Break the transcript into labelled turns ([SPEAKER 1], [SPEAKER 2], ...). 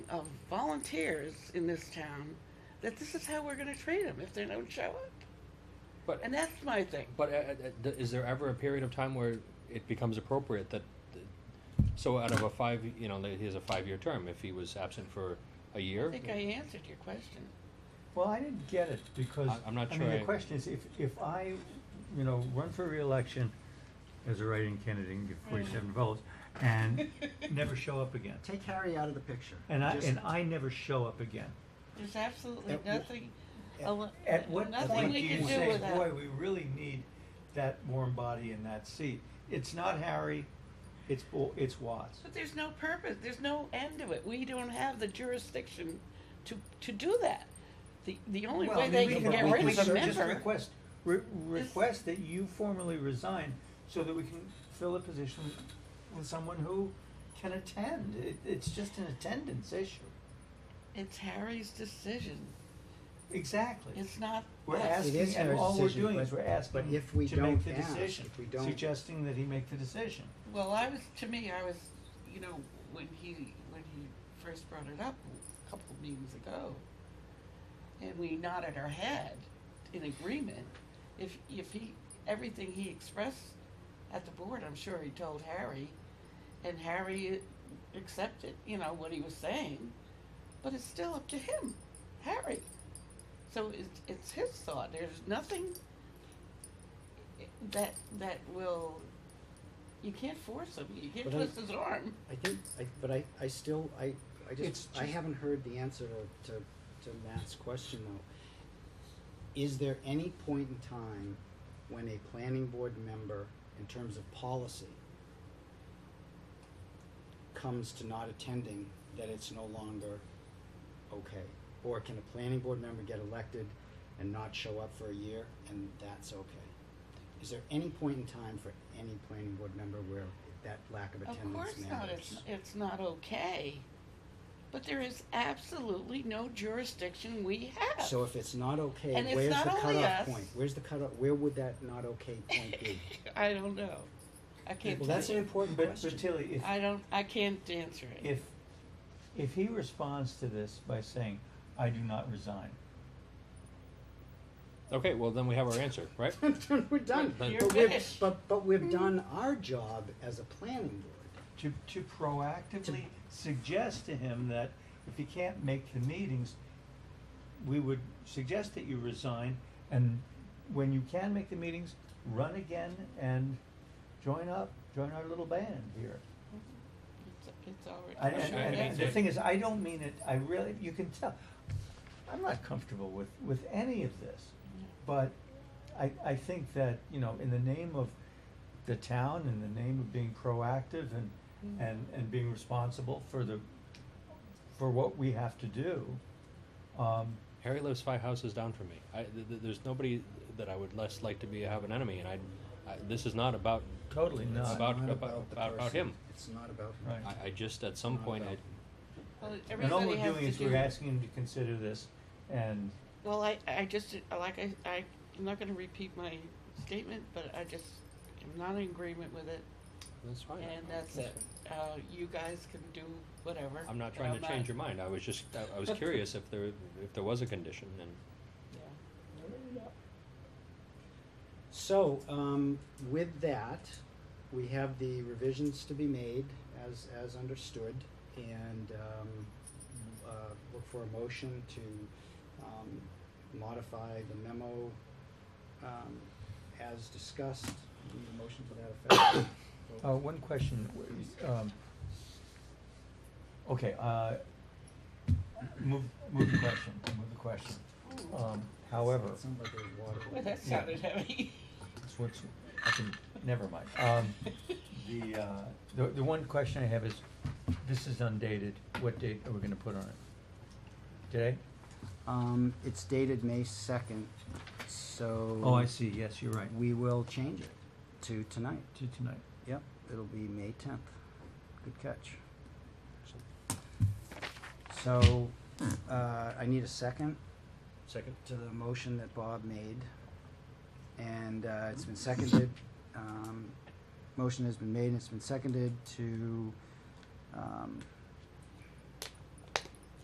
[SPEAKER 1] of volunteers in this town that this is how we're going to treat them if they don't show up.
[SPEAKER 2] But
[SPEAKER 1] And that's my thing.
[SPEAKER 2] but uh, uh, th- is there ever a period of time where it becomes appropriate that so out of a five you know he has a five year term if he was absent for a year
[SPEAKER 1] I think I answered your question.
[SPEAKER 3] Well, I didn't get it because,
[SPEAKER 2] I- I'm not
[SPEAKER 3] I
[SPEAKER 2] sure
[SPEAKER 3] mean, the
[SPEAKER 2] I-
[SPEAKER 3] question is if, if I, you know, run for reelection as a writing candidate and get forty-seven votes and never show up again.
[SPEAKER 4] Take Harry out of the picture.
[SPEAKER 3] And I,
[SPEAKER 4] Just-
[SPEAKER 3] and I never show up again.
[SPEAKER 1] There's absolutely
[SPEAKER 4] At wh-
[SPEAKER 1] nothing. al-
[SPEAKER 3] At what
[SPEAKER 1] nothing
[SPEAKER 3] point do
[SPEAKER 1] we
[SPEAKER 3] you
[SPEAKER 1] can do
[SPEAKER 3] say,
[SPEAKER 1] with
[SPEAKER 3] boy,
[SPEAKER 1] that.
[SPEAKER 3] we really need that warm body in that seat? It's not Harry, it's, Bo- it's Watts.
[SPEAKER 1] But there's no purpose. There's no end to it. We don't have the jurisdiction to to do that. The the only
[SPEAKER 3] Well,
[SPEAKER 1] way
[SPEAKER 3] I mean,
[SPEAKER 1] they
[SPEAKER 3] we
[SPEAKER 1] can
[SPEAKER 3] can-
[SPEAKER 1] get
[SPEAKER 3] we
[SPEAKER 1] rid
[SPEAKER 3] can
[SPEAKER 1] of a
[SPEAKER 3] cer- Just
[SPEAKER 1] member.
[SPEAKER 3] request, re- request that you formally resign so that we can fill a position with someone who can attend. It, it's just an attendance issue.
[SPEAKER 1] It's Harry's decision.
[SPEAKER 3] Exactly.
[SPEAKER 1] It's not.
[SPEAKER 3] We're
[SPEAKER 1] us.
[SPEAKER 4] It
[SPEAKER 3] asking,
[SPEAKER 4] is
[SPEAKER 3] and
[SPEAKER 4] our
[SPEAKER 3] all we're
[SPEAKER 4] decision,
[SPEAKER 3] doing
[SPEAKER 4] but-
[SPEAKER 3] is we're asking
[SPEAKER 4] but if we
[SPEAKER 3] to make
[SPEAKER 4] don't
[SPEAKER 3] the
[SPEAKER 4] ask,
[SPEAKER 3] decision,
[SPEAKER 4] if we don't-
[SPEAKER 3] suggesting that he make the decision.
[SPEAKER 1] Well, I was to me, I was, you know, when he when he first brought it up a couple of meetings ago, and we nodded our head in agreement. If if he everything he expressed at the board, I'm sure he told Harry, and Harry accepted, you know, what he was saying, but it's still up to him, Harry. So it's it's his thought. There's nothing that that will. You can't force him. You can't
[SPEAKER 4] But I-
[SPEAKER 1] twist his arm.
[SPEAKER 4] I think, I, but I, I still, I, I
[SPEAKER 3] It's
[SPEAKER 4] just, I
[SPEAKER 3] just-
[SPEAKER 4] haven't heard the answer to, to, to Matt's question though. Is there any point in time when a planning board member, in terms of policy, comes to not attending, that it's no longer okay? Or can a planning board member get elected and not show up for a year and that's okay? Is there any point in time for any planning board member where that lack of attendance
[SPEAKER 1] Of course not.
[SPEAKER 4] matters?
[SPEAKER 1] It's, it's not okay. But there is absolutely no jurisdiction we have.
[SPEAKER 4] So if it's not okay,
[SPEAKER 1] And it's
[SPEAKER 4] where's
[SPEAKER 1] not
[SPEAKER 4] the
[SPEAKER 1] only us.
[SPEAKER 4] cutoff point? Where's the cutoff, where would that not okay point be?
[SPEAKER 1] I don't know. I can't.
[SPEAKER 4] Well, that's
[SPEAKER 1] tell
[SPEAKER 4] an
[SPEAKER 1] you.
[SPEAKER 4] important
[SPEAKER 3] But, but
[SPEAKER 4] question.
[SPEAKER 3] Tilly, if,
[SPEAKER 1] I don't. I can't answer it.
[SPEAKER 3] if, if he responds to this by saying, I do not resign,
[SPEAKER 2] okay well then we have our answer right
[SPEAKER 4] We're done.
[SPEAKER 2] But-
[SPEAKER 1] You're
[SPEAKER 4] But we've,
[SPEAKER 1] finished.
[SPEAKER 4] but, but we've done our job as a planning board.
[SPEAKER 3] to, to proactively suggest to him that if he can't make the meetings, we would suggest that you resign, and when you can make the meetings, run again and join up, join our little band here.
[SPEAKER 1] it's, it's already.
[SPEAKER 3] I, and,
[SPEAKER 2] Sure,
[SPEAKER 3] and-
[SPEAKER 2] I
[SPEAKER 3] and
[SPEAKER 2] mean,
[SPEAKER 3] the
[SPEAKER 2] that-
[SPEAKER 3] thing is, I don't mean it, I really, you can tell, I'm not comfortable with, with any of this. But I, I think that, you know, in the name of the town, in the name of being proactive and,
[SPEAKER 1] Mm.
[SPEAKER 3] and, and being responsible for the, for what we have to do, um,
[SPEAKER 2] Harry lives five houses down from me. I, th- th- there's nobody that I would less like to be have an enemy, and I, I this is not about.
[SPEAKER 3] totally
[SPEAKER 2] It's
[SPEAKER 3] not.
[SPEAKER 2] about-
[SPEAKER 4] Not the
[SPEAKER 2] about- about
[SPEAKER 4] person.
[SPEAKER 2] him.
[SPEAKER 4] It's not about him.
[SPEAKER 3] Right.
[SPEAKER 2] I, I just at some point I,
[SPEAKER 1] Well,
[SPEAKER 3] And all
[SPEAKER 1] everybody
[SPEAKER 3] we're
[SPEAKER 1] has
[SPEAKER 3] doing
[SPEAKER 1] to
[SPEAKER 3] is
[SPEAKER 1] do-
[SPEAKER 3] we're asking him to consider this and,
[SPEAKER 1] Well, I, I just like I, I I'm not going to repeat my statement, but I just am not in agreement with it,
[SPEAKER 2] that's fine.
[SPEAKER 1] and that's it. Uh, you guys can do whatever.
[SPEAKER 2] I'm not trying to change your mind. I was just I, I was curious if there if there was a condition, and
[SPEAKER 1] Yeah.
[SPEAKER 4] So, um, with that, we have the revisions to be made as, as understood and, um, uh, look for a motion to, um, modify the memo, um, as discussed. Need a motion to that effect?
[SPEAKER 2] Oh,
[SPEAKER 3] uh, one question, um, okay, uh, move, move the question, move the question.
[SPEAKER 1] Ooh.
[SPEAKER 3] Um, however,
[SPEAKER 4] Sounds like there's
[SPEAKER 1] Well,
[SPEAKER 4] water.
[SPEAKER 1] that sounded heavy.
[SPEAKER 3] It's what's- I can- never mind. Um, the, uh, the, the one question I have is, this is undated, what date are we gonna put on it? Today?
[SPEAKER 4] Um, it's dated May second, so.
[SPEAKER 3] Oh, I see, yes, you're right,
[SPEAKER 4] We will change it to tonight.
[SPEAKER 3] to tonight.
[SPEAKER 4] Yep, it'll be May tenth. Good catch. So, uh, I need a second
[SPEAKER 2] second.
[SPEAKER 4] to the motion that Bob made. And, uh, it's been seconded, um, motion has been made and it's been seconded to, um,